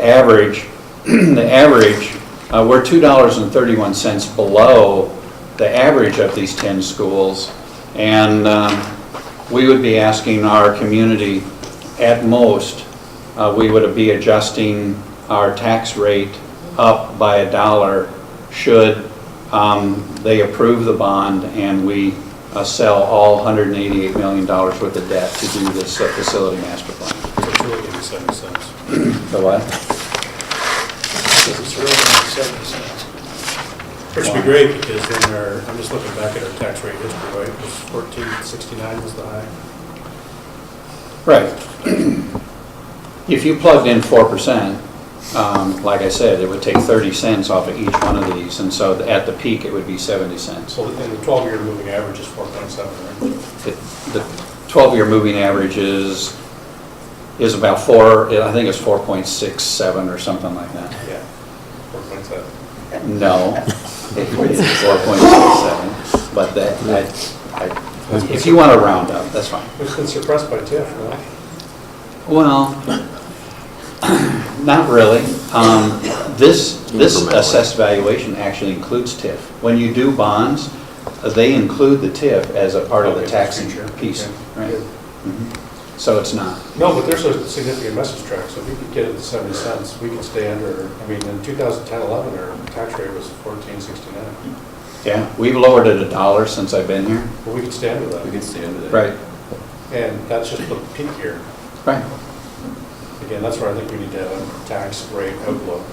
average, the average, uh, we're $2.31 below the average of these 10 schools, and um, we would be asking our community, at most, uh, we would be adjusting our tax rate up by a dollar should um, they approve the bond and we uh, sell all $188 million worth of debt to do this uh, facility master plan. It's really eighty-seven cents. So what? It's really eighty-seven cents. Which would be great, because then our, I'm just looking back at our tax rate history, right, it was fourteen sixty-nine was the high. Right. If you plugged in four percent, um, like I said, it would take thirty cents off of each one of these, and so at the peak, it would be seventy cents. So in the twelve-year moving average is four point seven, right? The the twelve-year moving average is, is about four, I think it's four point six seven or something like that. Yeah, four point seven. No, it's four point six seven, but that, I, I, if you want to round up, that's fine. It's been suppressed by TIF, no? Well, not really. Um, This, this Incrementally. assessed valuation actually includes TIF. When you do bonds, uh, they include the TIF as a part of the Okay, taxing sure. piece, Okay. right? Mhm. So it's not. No, but there's a significant message track, so if we could get it to seventy cents, we could stay under, I mean, in 2010-11, our tax rate was fourteen sixty-nine. Yeah, we've lowered it a dollar since I've been here. But we could stay under We that, can stay under that. and that's just the peak year. Right. Again, that's where I think we need to have a tax rate outlook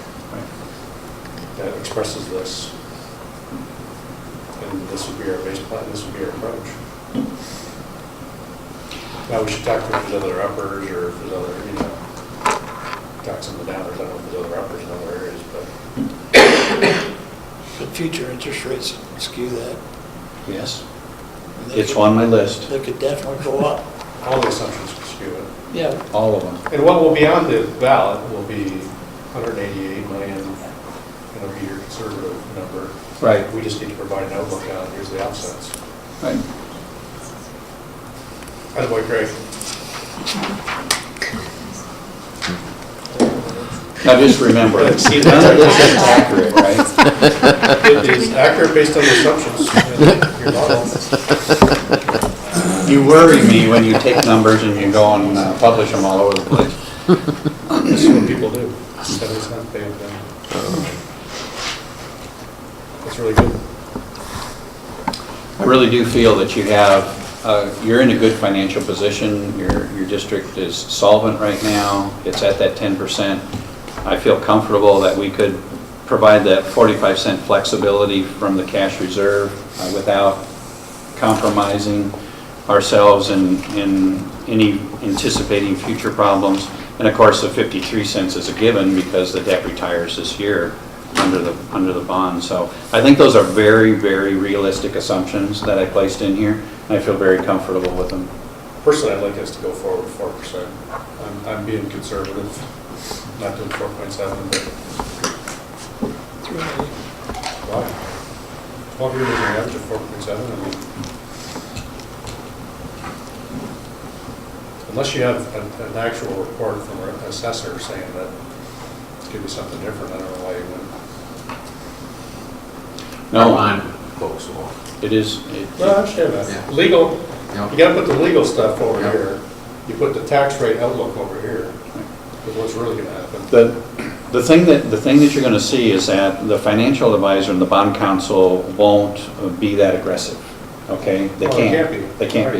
that expresses this. And this would be our base plan, this would be our approach. Now, we should talk to if there's other uppers or if there's other, you know, tax on the downers, I don't know if there's other uppers in other areas, but But future interest rates skew that. Yes, and they it's could- on my list, They could definitely go up. all the assumptions are skewed. Yeah. all of them. And what will be on the ballot will be 188 million, it'll be your conservative number. Right, We just need to provide an outlook on, here's the offsets. right. Attaboy, Craig. Now just remember, none of this is accurate, right? It is accurate based on the assumptions in your model. You worry me when you take numbers and you go and uh, publish them all over the place. This is what people do. That is not bad, then. That's really good. I really do feel that you have, uh, you're in a good financial position, your, your district is solvent right now, it's at that 10%. I feel comfortable that we could provide that 45 cent flexibility from the cash reserve uh, without compromising ourselves in, in any anticipating future problems. And of course, the 53 cents is a given because the debt retires this year under the, under the bond. So I think those are very, very realistic assumptions that I placed in here, and I feel very comfortable with them. Personally, I'd like us to go forward four percent. I'm, I'm being conservative, not doing four point seven, but why? Why are we using an average of four point seven? I mean, Unless you have an, an actual report from an assessor saying that it's gonna be something different, I don't know why you wouldn't. No, Folks, so, It is, it- Well, I understand that. Yeah. Legal, yeah. you gotta put the legal stuff over Yeah. here. You put the tax rate outlook over here, is what's really gonna happen. The, the thing that, the thing that you're going to see is that the financial advisor and the bond counsel won't be that aggressive, okay? They Well, can't. they can't be. They can't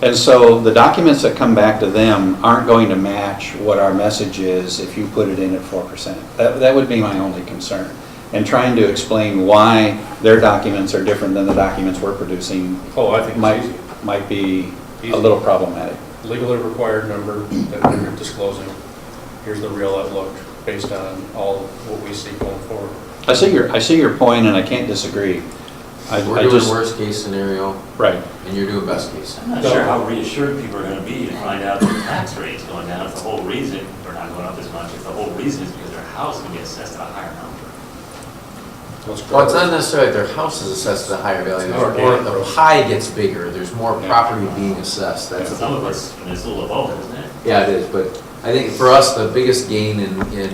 be. And so the documents that come back to them aren't going to match what our message is if you put it in at 4%. That, that would be my only concern. And trying to explain why their documents are different than the documents we're producing Oh, I think might, it's easy. might be Easy. a little problematic. legally required number that we're disclosing. Here's the real outlook based on all of what we see going forward. I see your, I see your point and I can't disagree. I- I We're doing just- worst case scenario Right. and you're doing best case. I'm not sure how reassured people are gonna be to find out that the tax rate's going down, if the whole reason, or not going up as much, if the whole reason is because their house is gonna be assessed at a higher number. Well, it's not necessarily that their house is assessed at a higher value, Or- there's more, the pie gets bigger, there's more property being assessed, that's the Some of us, and it's a little above, isn't it? Yeah, it is, but I think for us, the biggest gain in, in